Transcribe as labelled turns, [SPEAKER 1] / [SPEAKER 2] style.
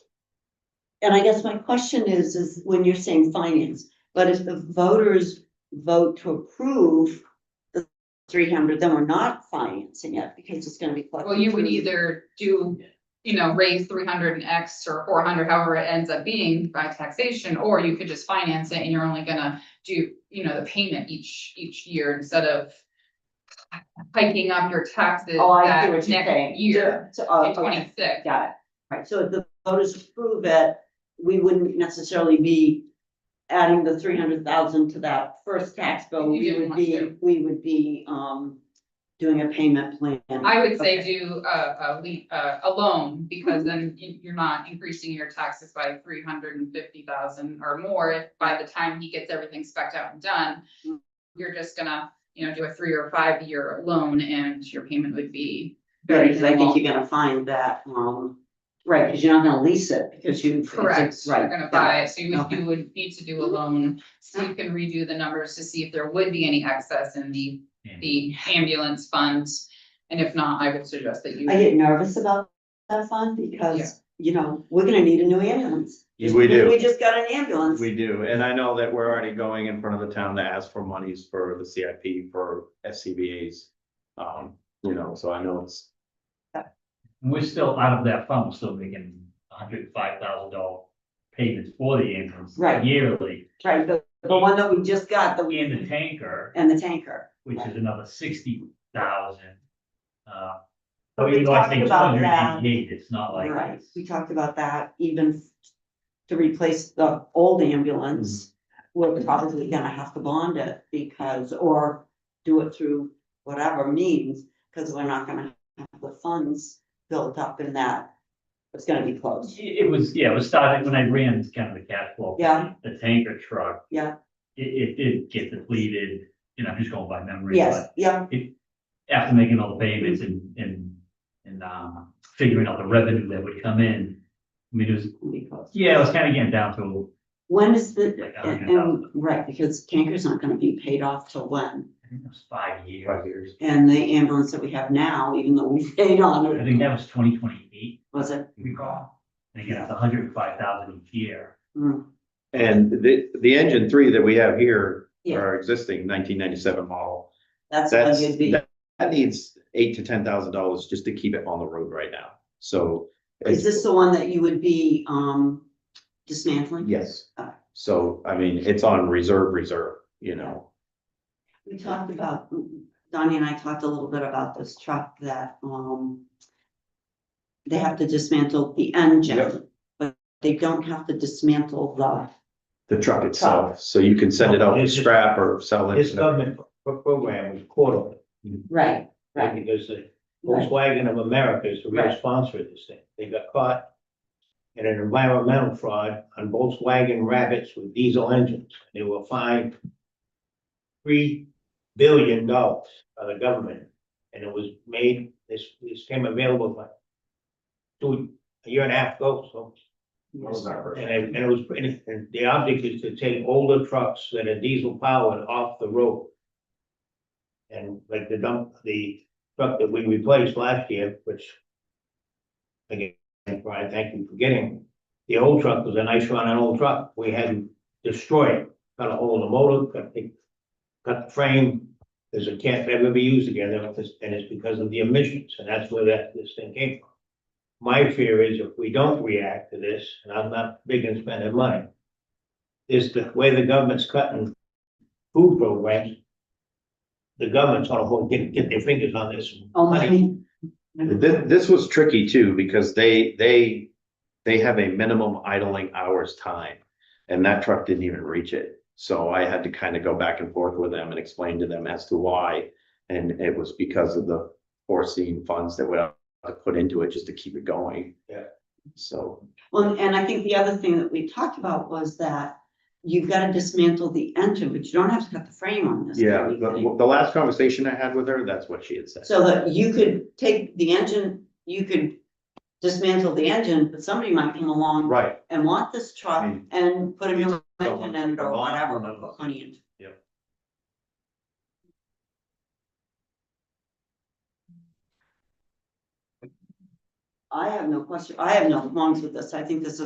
[SPEAKER 1] and I guess my question is, is when you're saying finance, but if the voters vote to approve the three hundred, then we're not financing it because it's gonna be.
[SPEAKER 2] Well, you would either do, you know, raise three hundred and X or four hundred, however it ends up being by taxation, or you could just finance it and you're only gonna do, you know, the payment each, each year instead of hiking up your taxes
[SPEAKER 3] Oh, I see
[SPEAKER 2] that
[SPEAKER 3] what you're saying.
[SPEAKER 2] next year
[SPEAKER 3] So,
[SPEAKER 2] in
[SPEAKER 3] oh, okay,
[SPEAKER 2] twenty-six.
[SPEAKER 3] got it.
[SPEAKER 1] uh, Right, so if the voters approve it, we wouldn't necessarily be adding the three hundred thousand to that first tax bill.
[SPEAKER 2] If you
[SPEAKER 1] We
[SPEAKER 2] didn't
[SPEAKER 1] would
[SPEAKER 2] want
[SPEAKER 1] be,
[SPEAKER 2] to.
[SPEAKER 1] we would be, um, doing a payment plan.
[SPEAKER 2] I would say
[SPEAKER 1] Okay. Mm-hmm.
[SPEAKER 2] do uh, a, a lea- a, a loan, because then you- you're not increasing your taxes by three hundred and fifty thousand or more. If By the time he gets everything specked out and done,
[SPEAKER 1] Mm-hmm.
[SPEAKER 2] you're just gonna, you know, do a three or five-year loan and your payment would be.
[SPEAKER 1] Right,
[SPEAKER 2] very
[SPEAKER 1] because I think
[SPEAKER 2] minimal.
[SPEAKER 1] you're gonna find that, um, right, because you're not gonna lease it, because you. it's a-
[SPEAKER 2] Correct,
[SPEAKER 1] Right.
[SPEAKER 2] you're gonna
[SPEAKER 1] got
[SPEAKER 2] buy
[SPEAKER 1] it.
[SPEAKER 2] it, so you would,
[SPEAKER 1] Okay. Mm-hmm.
[SPEAKER 2] you would need to do a loan. Steve can redo the numbers to see if there would be any excess in the, the ambulance fund. And if not, I would suggest that you.
[SPEAKER 1] I get nervous about that fund because, you know, we're gonna need a new ambulance.
[SPEAKER 4] Yeah,
[SPEAKER 1] Just
[SPEAKER 4] we
[SPEAKER 1] because
[SPEAKER 4] do.
[SPEAKER 1] We just got an ambulance.
[SPEAKER 4] We do, and I know that we're already going in front of the town to ask for monies for the CIP for SCBA's. Um, you know, so I know it's,
[SPEAKER 5] We're still out of that fund, we're still making hundred and five thousand dollar payments for the ambulance
[SPEAKER 1] Right.
[SPEAKER 5] yearly.
[SPEAKER 1] Right, the, the one that we just got, the,
[SPEAKER 5] And the tanker,
[SPEAKER 1] and the tanker.
[SPEAKER 5] which is another sixty thousand. Uh,
[SPEAKER 1] But
[SPEAKER 5] so
[SPEAKER 1] we
[SPEAKER 5] even though I
[SPEAKER 1] talked
[SPEAKER 5] think two
[SPEAKER 1] about
[SPEAKER 5] hundred
[SPEAKER 1] that.
[SPEAKER 5] and eighty-eight, it's not like.
[SPEAKER 1] Right,
[SPEAKER 5] it's-
[SPEAKER 1] we talked about that even to replace the old ambulance.
[SPEAKER 5] Mm-hmm.
[SPEAKER 1] We're probably gonna have to bond it because, or do it through whatever means, because we're not gonna have the funds built up in that. It's gonna be closed,
[SPEAKER 5] It it was, yeah, it was started when I ran kind of the cash flow. for
[SPEAKER 1] Yeah.
[SPEAKER 5] The tanker truck.
[SPEAKER 1] Yeah.
[SPEAKER 5] It, it did get depleted, and I'm just going by memory,
[SPEAKER 1] yes,
[SPEAKER 5] but
[SPEAKER 1] yeah,
[SPEAKER 5] after making all the payments and, and, and, um, figuring out the revenue that would come in. I mean, it was,
[SPEAKER 1] it'll be closed.
[SPEAKER 5] yeah, it was kind of getting down to
[SPEAKER 1] When is the,
[SPEAKER 5] Like, I don't
[SPEAKER 1] and,
[SPEAKER 5] know.
[SPEAKER 1] and- right, because tanker's not gonna be paid off till when?
[SPEAKER 5] I think it was five years.
[SPEAKER 4] Five years.
[SPEAKER 1] And the ambulance that we have now, even though we paid on
[SPEAKER 5] I
[SPEAKER 1] it,
[SPEAKER 5] think that was twenty twenty-eight,
[SPEAKER 1] was it?
[SPEAKER 5] recall. And again, it's hundred and five thousand each year.
[SPEAKER 1] Mm,
[SPEAKER 4] and the, the engine three that we have here,
[SPEAKER 1] Yeah.
[SPEAKER 4] our existing nineteen ninety-seven model.
[SPEAKER 1] That's when
[SPEAKER 4] That's,
[SPEAKER 1] you'd be,
[SPEAKER 4] that that needs eight to ten thousand dollars just to keep it on the road right now, so.
[SPEAKER 1] is this the one that you would be, um, dismantling?
[SPEAKER 4] Yes,
[SPEAKER 1] Ah.
[SPEAKER 4] so, I mean, it's on reserve, reserve, you know,
[SPEAKER 1] We talked about, Donnie and I talked a little bit about this truck that, um. They have to dismantle the engine,
[SPEAKER 4] Yep.
[SPEAKER 1] but they don't have to dismantle the,
[SPEAKER 4] the truck itself, so you can send it out with
[SPEAKER 6] It's just-
[SPEAKER 4] scrap or sell it.
[SPEAKER 6] His government pro- program was quarterly,
[SPEAKER 1] right,
[SPEAKER 6] right,
[SPEAKER 1] right,
[SPEAKER 6] because the
[SPEAKER 1] right,
[SPEAKER 6] Volkswagen of America is the real
[SPEAKER 1] Right.
[SPEAKER 6] sponsor of this thing. They got caught in an environmental fraud on Volkswagen rabbits with diesel engines. They were fined three billion dollars by the government. And it was made, this, this came available like two, a year and a half ago, so. And it, and it was, and it- the object is to take older trucks that are diesel powered off the road. And like the dump, the truck that we replaced last year, which. Again, Brian, thank you for getting, the old truck was a nice run, an old truck, we had destroyed, it, cut a hole in the motor, cut the. Cut the frame, because it can't ever be used again, and it's- and it's because of the emissions, and that's where that, this thing came from. My fear is if we don't react to this, and I'm not big in spending money, is the way the government's cutting food programs, the government's gonna hold, get, get their fingers on this.
[SPEAKER 1] only.
[SPEAKER 4] This, this was tricky too, because they, they, they have a minimum idling hours time. And that truck didn't even reach it. So I had to kind of go back and forth with them and explain to them as to why. And it was because of the foreseen funds that we have to put into it just to keep it going.
[SPEAKER 6] Yeah.
[SPEAKER 4] So,
[SPEAKER 1] Well, and I think the other thing that we talked about was that you've gotta dismantle the engine, but you don't have to cut the frame on this.
[SPEAKER 4] yeah,
[SPEAKER 1] thing.
[SPEAKER 4] the, the last conversation I had with her, that's what she had said.
[SPEAKER 1] So that you could take the engine, you could dismantle the engine, but somebody might come along
[SPEAKER 4] Right,
[SPEAKER 1] and want this truck
[SPEAKER 4] Mm.
[SPEAKER 1] and put a new engine
[SPEAKER 4] Someone-
[SPEAKER 1] in it or whatever,
[SPEAKER 4] Someone-
[SPEAKER 1] put honey in.
[SPEAKER 4] Yep.
[SPEAKER 1] I have no question, I have no qualms with this, I think this is